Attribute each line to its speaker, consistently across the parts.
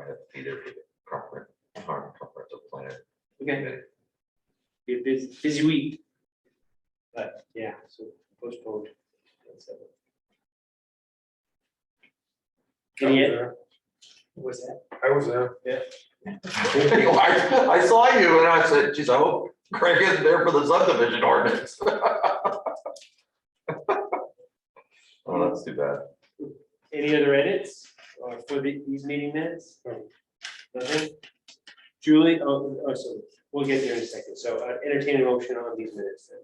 Speaker 1: have to be there for the proper time, comprehensive plan.
Speaker 2: Okay, be a busy, busy week. But yeah, so postponed. Any, what's that?
Speaker 3: I was there.
Speaker 1: I I saw you and I said, geez, I hope Craig isn't there for the subdivision ordinance. Oh, that's too bad.
Speaker 2: Any other edits or for the, these meeting minutes? Nothing? Julie, oh, oh, so we'll get there in a second. So uh, entertain a motion on these minutes then.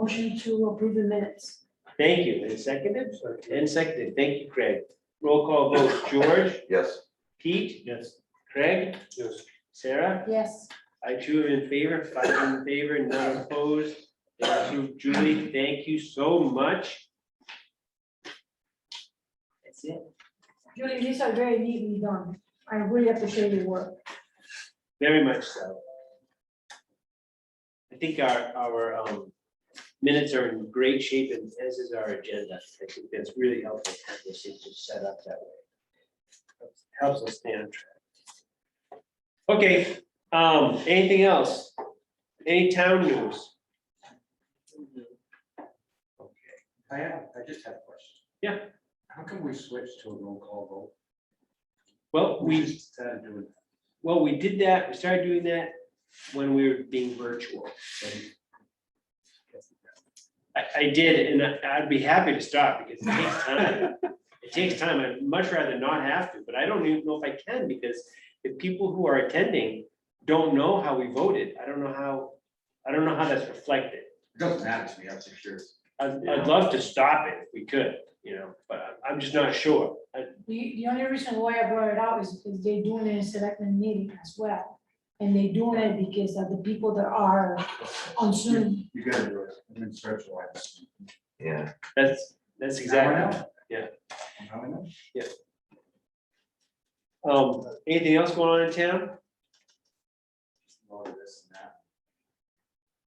Speaker 4: Motion to approve the minutes.
Speaker 2: Thank you. And seconded? And seconded. Thank you, Craig. Roll call vote. George,
Speaker 1: Yes,
Speaker 2: Pete? Yes. Craig?
Speaker 3: Yes.
Speaker 2: Sarah?
Speaker 4: Yes,
Speaker 2: I two are in favor, five in favor, none opposed. Thank you, Julie. Thank you so much. That's it.
Speaker 4: Julie, these are very neatly done. I really appreciate your work.
Speaker 2: Very much so. I think our, our um, minutes are in great shape and as is our agenda. I think that's really helpful, to have this thing just set up that way. Helps us stay on track. Okay, um, anything else? Any town news?
Speaker 3: I have, I just have a question.
Speaker 2: Yeah.
Speaker 3: How can we switch to a roll call
Speaker 2: Well,
Speaker 3: vote?
Speaker 2: we.
Speaker 3: just started doing
Speaker 2: Well, we did that, we started doing that when we were being virtual. I, I did, and I- I'd be happy to stop because it takes time. It takes time. I'd much rather not have to, but I don't even know if I can because if people who are attending don't know how we voted, I don't know how, I don't know how that's reflected.
Speaker 3: It Doesn't matter to me, I'm just curious.
Speaker 2: I'd, I'd love to stop it if we could, you know, but I'm- I'm just not sure. I-
Speaker 4: The, the only reason why I brought it out is because they're doing it in selectmen meeting as well. And they're doing it because of the people that are on Zoom.
Speaker 3: You gotta do it, I'm in search of life.
Speaker 1: yeah.
Speaker 2: That's, that's exactly. Yeah. Um, anything else going on in town?
Speaker 3: All of this and that.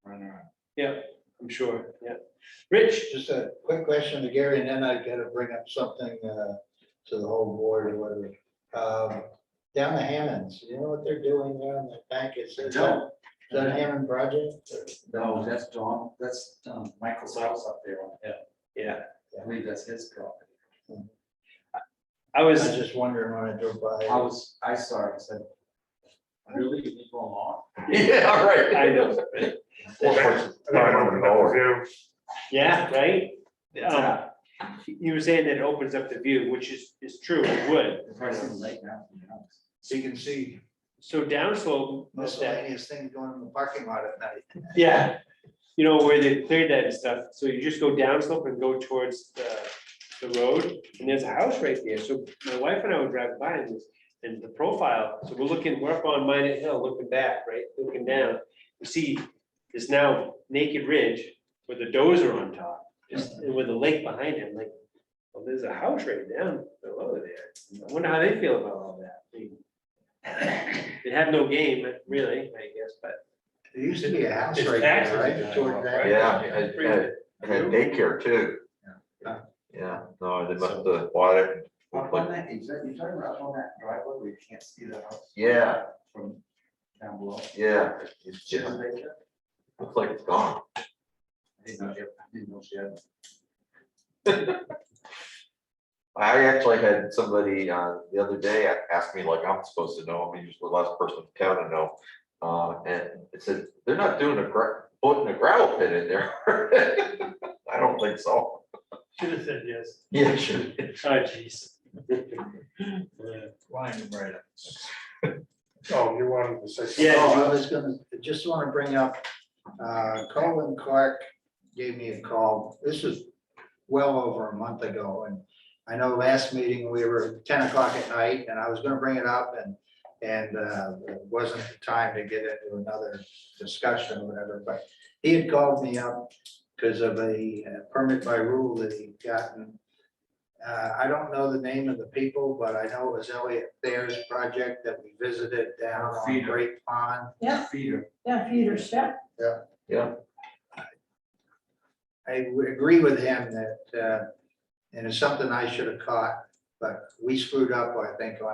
Speaker 3: Running around.
Speaker 2: I'm sure, yeah. Rich?
Speaker 5: Just a quick question to Gary, and then I gotta bring up something uh, to the whole board or whatever. Um, Down the Hammonds, you know what they're doing there on the bank? Is is that
Speaker 3: No,
Speaker 5: is that Hammond project?
Speaker 3: no, that's Don, that's um, Michael's house up there on the hill.
Speaker 2: Yeah,
Speaker 3: I believe that's his property.
Speaker 2: I
Speaker 5: I
Speaker 2: was,
Speaker 5: was just wondering when I drove by.
Speaker 3: I was, I saw it, I said, really, you need one more?
Speaker 1: Yeah, all right.
Speaker 2: I know, yeah, right? Um, You were saying that it opens up the view, which is, is true, it would.
Speaker 3: The person's late now. you know.
Speaker 5: So you can see
Speaker 2: So downslope, that's that,
Speaker 5: miscellaneous things going in the parking lot at night.
Speaker 2: yeah, you know, where they cleared that and stuff, so you just go downslope and go towards the, the road, and there's a house right there, so my wife and I would drive by and, and the profile, so we're looking, we're up on Minot Hill, looking back, right, looking down, you see this now naked ridge with the dozer on top, just and with the lake behind him, like, well, there's a house right down below there. I wonder how they feel about all that. They- They have no game, really, I guess, but
Speaker 5: There used to be a house
Speaker 2: It's
Speaker 5: right there,
Speaker 2: actually
Speaker 5: right? Toward that-
Speaker 1: Yeah, I- I- I had daycare too.
Speaker 5: Yeah.
Speaker 1: Yeah, no, they must have water.
Speaker 3: Up on that, is that, you're talking about up on that driveway where you can't see the house?
Speaker 1: Yeah.
Speaker 3: From down below?
Speaker 1: Yeah, it's
Speaker 3: She
Speaker 1: just,
Speaker 3: has a daycare?
Speaker 1: looks like it's gone.
Speaker 3: I didn't know she had, I didn't know she had.
Speaker 1: I actually had somebody uh the other day a- ask me like I'm supposed to know, I'm usually the last person in town to know. Uh, and it said, they're not doing a gra- putting a gravel pit in there. I don't think so.
Speaker 2: Should have said yes.
Speaker 1: Yeah, sure.
Speaker 2: Oh, jeez.
Speaker 5: Line right up.
Speaker 6: Oh, you wanted to say. something.
Speaker 2: Yeah.
Speaker 5: Oh, I was gonna, just wanna bring up, uh, Colin Clark gave me a call, this was well over a month ago, and I know last meeting, we were ten o'clock at night, and I was gonna bring it up, and, and, uh, it wasn't the time to get into another discussion or whatever, but he had called me up because of a uh, permit by rule that he'd gotten. Uh, I don't know the name of the people, but I know it was Elliot Thayer's project that we visited down on
Speaker 3: Feeder.
Speaker 5: Great Pond.
Speaker 4: Yeah.
Speaker 3: Feeder.
Speaker 4: Yeah, Peter, step.
Speaker 5: I would agree with him that, uh, and it's something I should have caught, but we screwed up, I think, on